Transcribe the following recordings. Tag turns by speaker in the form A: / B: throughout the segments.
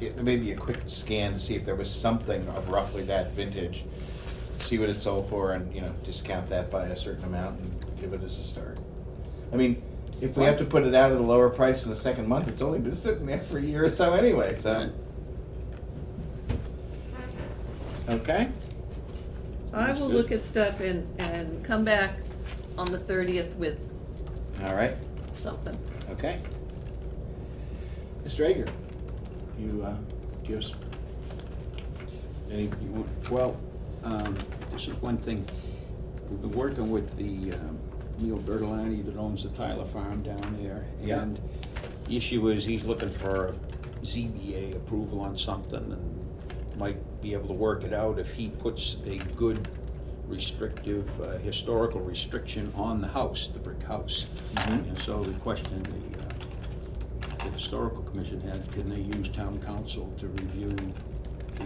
A: it- maybe a quick scan to see if there was something of roughly that vintage. See what it sold for and, you know, discount that by a certain amount and give it as a start. I mean, if we have to put it out at a lower price in the second month, it's only been sitting there for a year or so anyway, so. Okay?
B: I
A: That's
B: will
A: good.
B: look at stuff and, and come back on the thirtieth with
A: All right,
B: something.
A: okay. Mr. Ager, you, uh, do you have s- any, you want-
C: Well, um, this is one thing, we've been working with the um, Neil Bertolani that owns the Tyler Farm down there.
A: Yeah.
C: And the issue is he's looking for ZBA approval on something and might be able to work it out if he puts a good restrictive, uh, historical restriction on the house, the brick house.
A: Mhm.
C: And so we questioned the, uh, the historical commission had, can they use town council to review the,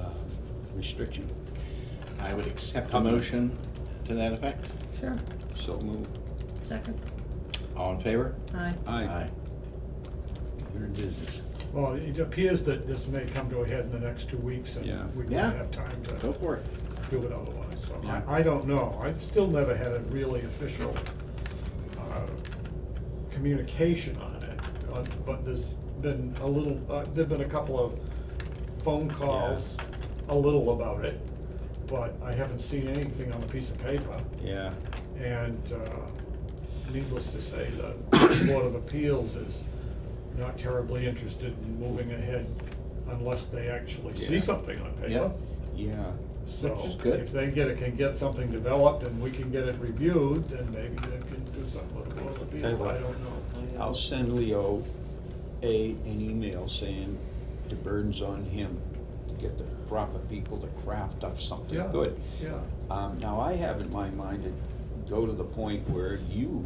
C: uh, restriction?
A: I would accept a motion to that effect.
B: Sure.
C: So move.
B: Second.
A: All in favor?
B: Aye.
C: Aye, you're in business.
D: Well, it appears that this may come to a head in the next two weeks, and
C: Yeah.
D: we
A: Yeah.
D: don't have time
A: Go
D: to
A: for it.
D: do it otherwise. So
C: Yeah.
D: I, I don't know. I've still never had a really official uh, communication on it, uh, but there's been a little, uh, there've been a couple of phone calls, a little about it, but I haven't seen anything on a piece of paper.
C: Yeah,
D: And uh, needless to say, the Board of Appeals is not terribly interested in moving ahead unless they actually see
C: Yeah.
D: something on
A: Yeah.
D: paper.
C: yeah,
A: Which is
D: So
A: good.
D: if they get it, can get something developed and we can get it reviewed, then maybe they can do something with the Board of Appeals, I don't know.
C: I'll send Leo a, an email saying the burden's on him to get the proper people to craft up something
D: Yeah,
C: good.
D: Yeah,
C: Um, now, I have in my mind to go to the point where you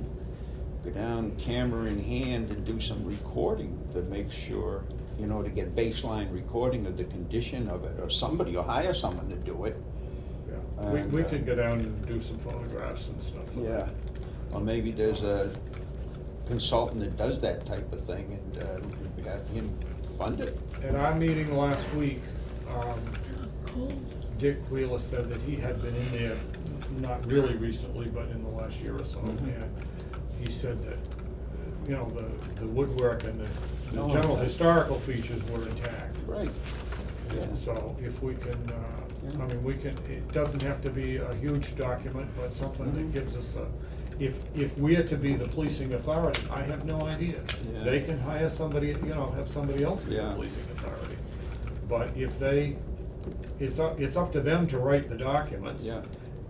C: go down camera in hand and do some recording to make sure, you know, to get baseline recording of the condition of it, or somebody, or hire someone to do it.
D: yeah. We,
C: And,
D: we
C: uh,
D: can go down and do some photographs and stuff.
C: Yeah, or maybe there's a consultant that does that type of thing and, uh, have him fund it.
D: At our meeting last week, um,
B: Cool.
D: Dick Wheeler said that he had been in there, not really recently, but in the last year or so,
C: Mhm.
D: and he said that, you know, the, the woodwork and the, the
C: No,
D: general
C: I-
D: historical features were intact.
C: Right. Yeah,
D: So if we can, uh,
C: Yeah.
D: I mean, we can, it doesn't have to be a huge document, but something
C: Mhm.
D: that gives us a, if, if we're to be the policing authority, I have no idea.
C: Yeah.
D: They can hire somebody, you know, have somebody else be the
C: Yeah.
D: policing authority. But if they, it's up, it's up to them to write the documents.
C: Yeah.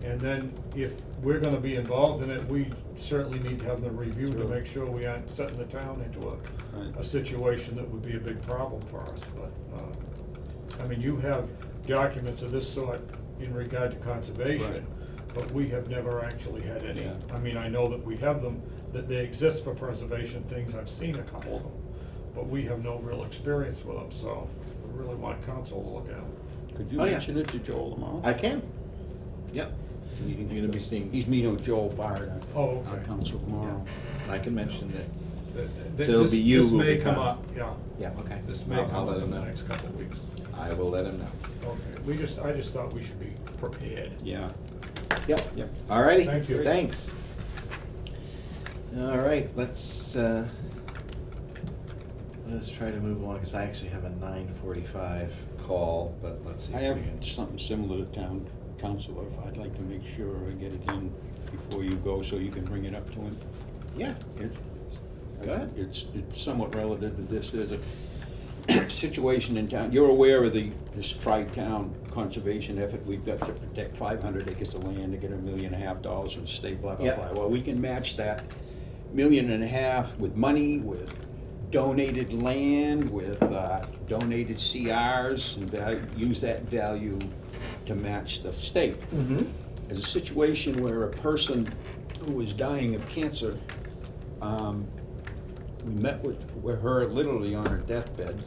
D: And then if we're gonna be involved in it, we certainly need to have the review to
C: True.
D: make sure we aren't setting the town into a, a
C: right,
D: situation that would be a big problem for us, but, uh, I mean, you have documents of this sort in regard to
C: Right.
D: conservation, but we have never actually had any.
C: Yeah.
D: I mean, I know that we have them, that they exist for preservation things, I've seen a couple of them, but we have no real experience with them, so we really want council to look at them.
C: could you
A: Oh, yeah.
C: mention it to Joel tomorrow?
A: I can. Yep. You're gonna be seeing,
C: He's meeting with Joel Bard, our-
D: Oh,
C: our
D: okay.
C: council tomorrow.
A: I can mention that,
D: That- that-
A: So it'll
D: this-
A: be you
D: This
A: who
D: may
A: will
D: come
A: become-
D: up, yeah,
A: yeah, okay.
D: this may
A: I'll- I'll
D: come
A: let
D: up in
A: him
D: the
A: know.
D: next couple of weeks.
A: I will let him know.
D: Okay, we just, I just thought we should be prepared.
C: Yeah,
A: Yep.
C: yep.
A: All righty.
D: Thank you.
A: Thanks. All right, let's, uh, let's try to move along, because I actually have a nine forty-five call, but let's see.
C: I
A: if
C: have
A: we can-
C: something similar to town council, if I'd like to make sure I get it in before you go, so you can bring it up to him.
A: Yeah,
C: It-
A: Go ahead.
C: It's it's somewhat relative to this, there's a situation in town, you're aware of the, this tri-town conservation effort we've got to protect five hundred acres of land to get a million and a half dollars from the state, blah, blah,
A: Yeah.
C: blah. Well, we can match that million and a half with money, with donated land, with uh, donated CRs, and val- use that value to match the state.
D: Mm-hmm.
A: mhm,
C: There's a situation where a person who was dying of cancer, um, we met with, with her literally on her deathbed,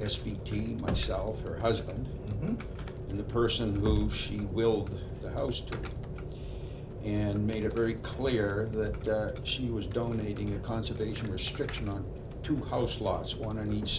C: SVT, myself, her husband,
A: mhm.
C: and the person who she willed the house to. And made it very clear that, uh, she was donating a conservation restriction on two house lots, one on each